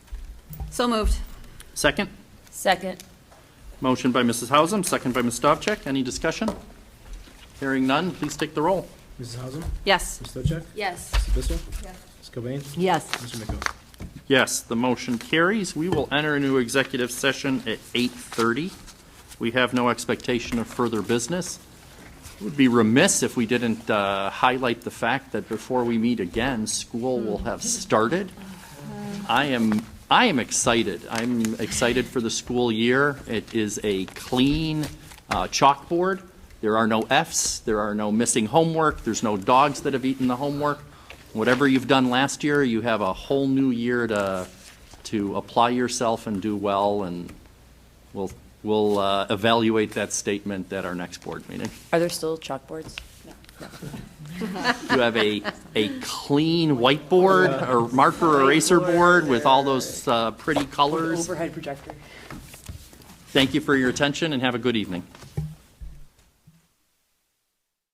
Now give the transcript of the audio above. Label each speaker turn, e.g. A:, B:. A: So moved.
B: Second?
C: Second.
B: Motion by Mrs. Hausum, second by Ms. Stavcek. Any discussion? Hearing none, please take the roll.
D: Mrs. Hausum,
A: Yes.
D: Ms. Stochek,
A: Yes.
D: Mr. Bissell, Ms. Cobain,
C: Yes.
D: Mr. Miko.
B: Yes, the motion carries. We will enter into executive session at 8:30. We have no expectation of further business. It would be remiss if we didn't uh, highlight the fact that before we meet again, school will have started. I am, I am excited. I'm excited for the school year. It is a clean uh, chalkboard. There are no Fs, there are no missing homework, there's no dogs that have eaten the homework. Whatever you've done last year, you have a whole new year to, to apply yourself and do well, and we'll, we'll uh, evaluate that statement at our next board meeting.
C: Are there still chalkboards?
B: You have a, a clean whiteboard or marker eraser board with all those uh, pretty colors.
C: Overhead projector.
B: Thank you for your attention and have a good evening.